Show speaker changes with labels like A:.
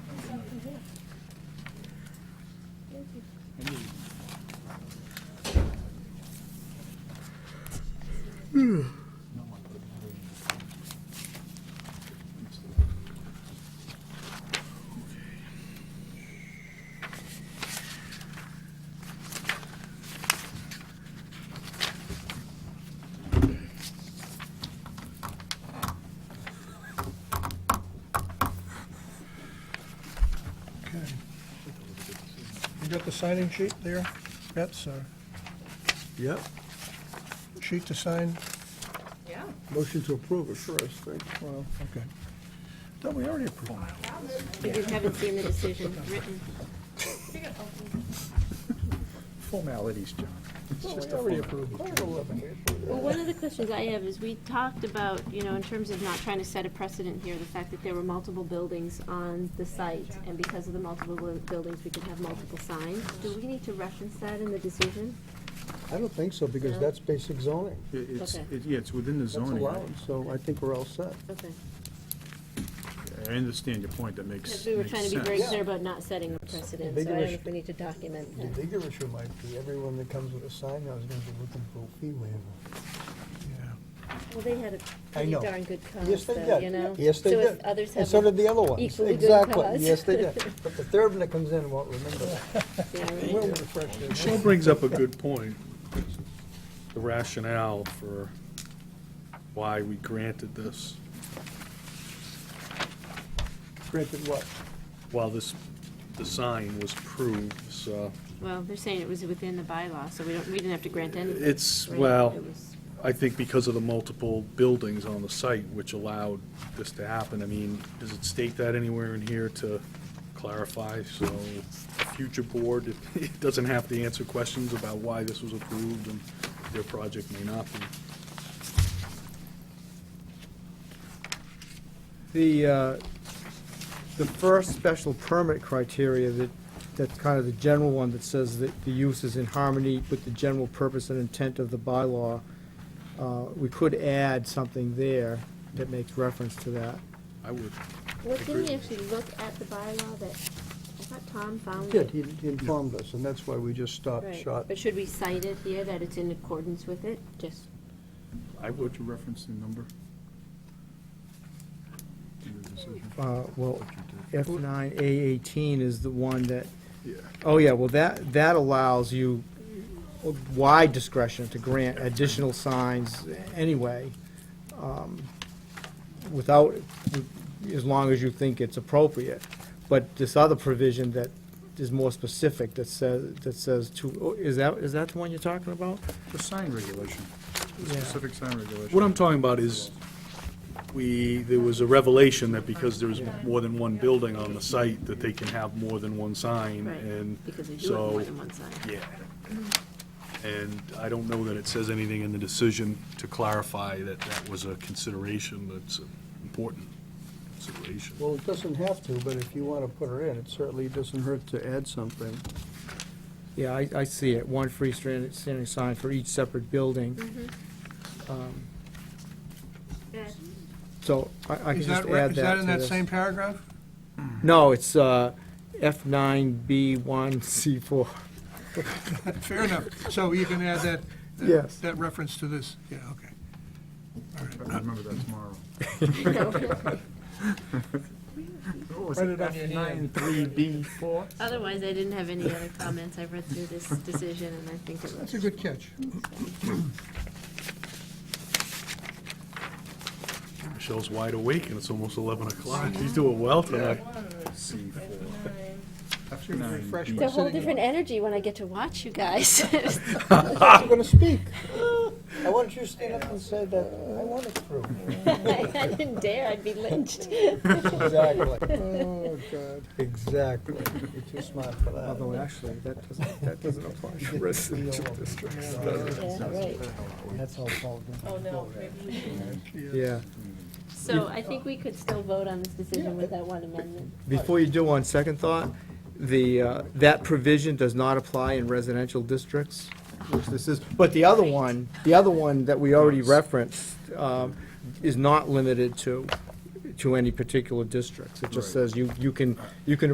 A: Okay. You got the signing sheet there? That's a
B: Yep,
A: sheet to sign?
C: Yeah.
B: motion to approve it first, right?
A: Well, okay. No, we already approved. it.
D: You just haven't seen the decision written.
E: Formalities, John. It's
D: Oh,
A: Well,
E: just
A: we
E: a
A: already
E: formality.
A: approved it.
D: Well, one of the questions I have is, we talked about, you know, in terms of not trying to set a precedent here, the fact that there were multiple buildings on the site, and because of the multiple bu- buildings, we could have multiple signs. Do we need to reference that in the decision?
F: I don't think so, because that's basic zoning.
E: It- It's,
D: Okay.
E: it- yeah, it's within the
F: That's
E: zoning.
F: allowed, so I think we're all set.
D: Okay.
E: I understand your point, that makes
D: Because we were
E: makes
D: trying to be very
E: sense.
D: clear about not setting a precedent, so I
F: Bigger
D: don't know
F: issue.
D: if we need to document
F: The
D: that.
F: bigger issue might be, everyone that comes with a sign now is gonna be looking for a fee waiver.
D: Well, they had a
F: I
D: pretty
F: know.
D: darn good cause,
F: Yes, they
D: though, you know?
F: did. Yes, they did.
D: So if others
F: And
D: have,
F: so
D: a-
F: did the other ones.
D: equally good
F: Exactly,
D: cause.
F: yes, they did. But the third one that comes in won't remember.
D: yeah, right.
F: We'll refresh their
B: Michelle brings up a good point, the rationale for why we granted this,
F: Granted what?
B: while this, the sign was approved, so.
D: well, they're saying it was within the bylaw, so we don't, we didn't have to grant anything.
B: It's,
D: right?
B: well,
D: It was-
B: I think because of the multiple buildings on the site which allowed this to happen, I mean, does it state that anywhere in here to clarify? So a future board, it- it doesn't have to answer questions about why this was approved and their project may not be.
G: The, uh, the first special permit criteria that, that's kind of the general one that says that the use is in harmony with the general purpose and intent of the bylaw, uh, we could add something there that makes reference to that.
B: I would,
D: Well, didn't
B: agree.
D: we actually look at the bylaw that, I thought Tom
F: He
D: found
F: did,
D: it?
F: he he informed us, and that's why we just stopped
D: Right,
F: short.
D: But should we cite it here, that it's in accordance with it, just?
E: I would reference the number. In the decision.
G: Uh, Well, F nine A eighteen is the one that,
E: Yeah.
G: oh yeah, well, that, that allows you wide discretion to grant additional signs anyway, um, without, as long as you think it's appropriate. But this other provision that is more specific, that says, that says to, oh, is that, is that the one you're talking about?
E: The sign regulation, the
G: Yeah.
E: specific sign regulation.
B: what I'm talking about is, we, there was a revelation that because there's more than one building on the site, that they can have more than one sign,
D: Right,
B: and
D: Because they do have
B: so.
D: more than one sign.
B: Yeah. And I don't know that it says anything in the decision to clarify that that was a consideration, that's an important consideration.
F: Well, it doesn't have to, but if you wanna put her in, it certainly doesn't hurt to add something.
G: Yeah, I, I see it, one freestanding standing sign for each separate building.
D: Mm-hmm.
G: Um, So I, I can
A: Is
G: just
A: that, re-
G: add that
A: is that in
G: to
A: that
G: this.
A: same paragraph?
G: No, it's uh, F nine B one C four.
A: Fair enough. So you can add that, that-
G: Yes.
A: that reference to this. Yeah, okay.
E: I remember that tomorrow. What was
A: Write
E: it,
A: it on your hand.
E: F93B4?
D: Otherwise, I didn't have any other comments, I've read through this decision, and I think it
A: That's
D: was,
A: a good catch.
B: Michelle's wide awake, and it's almost 11 o'clock. She's doing well tonight.
E: F9B.
F: Refresh
D: it's a
F: my
D: whole
F: sitting.
D: different energy when I get to watch you guys.
F: I'm gonna speak. I wanted you to stand up and say that, I want it through.
D: I didn't dare, I'd be lynched.
F: Exactly,
A: Oh, God.
F: exactly. You're too smart for that.
G: Although actually, that doesn't, that doesn't apply to residential districts.
D: Yeah, right.
F: That's all Paul did.
C: Oh, no.
G: Yeah.
D: So I think we could still vote on this decision with that one amendment.
G: Before you do, on second thought, the, uh, that provision does not apply in residential districts, which this is. But the other one, the other one that we already referenced um, is not limited to, to any particular districts. It just
E: Right.
G: says you, you can, you can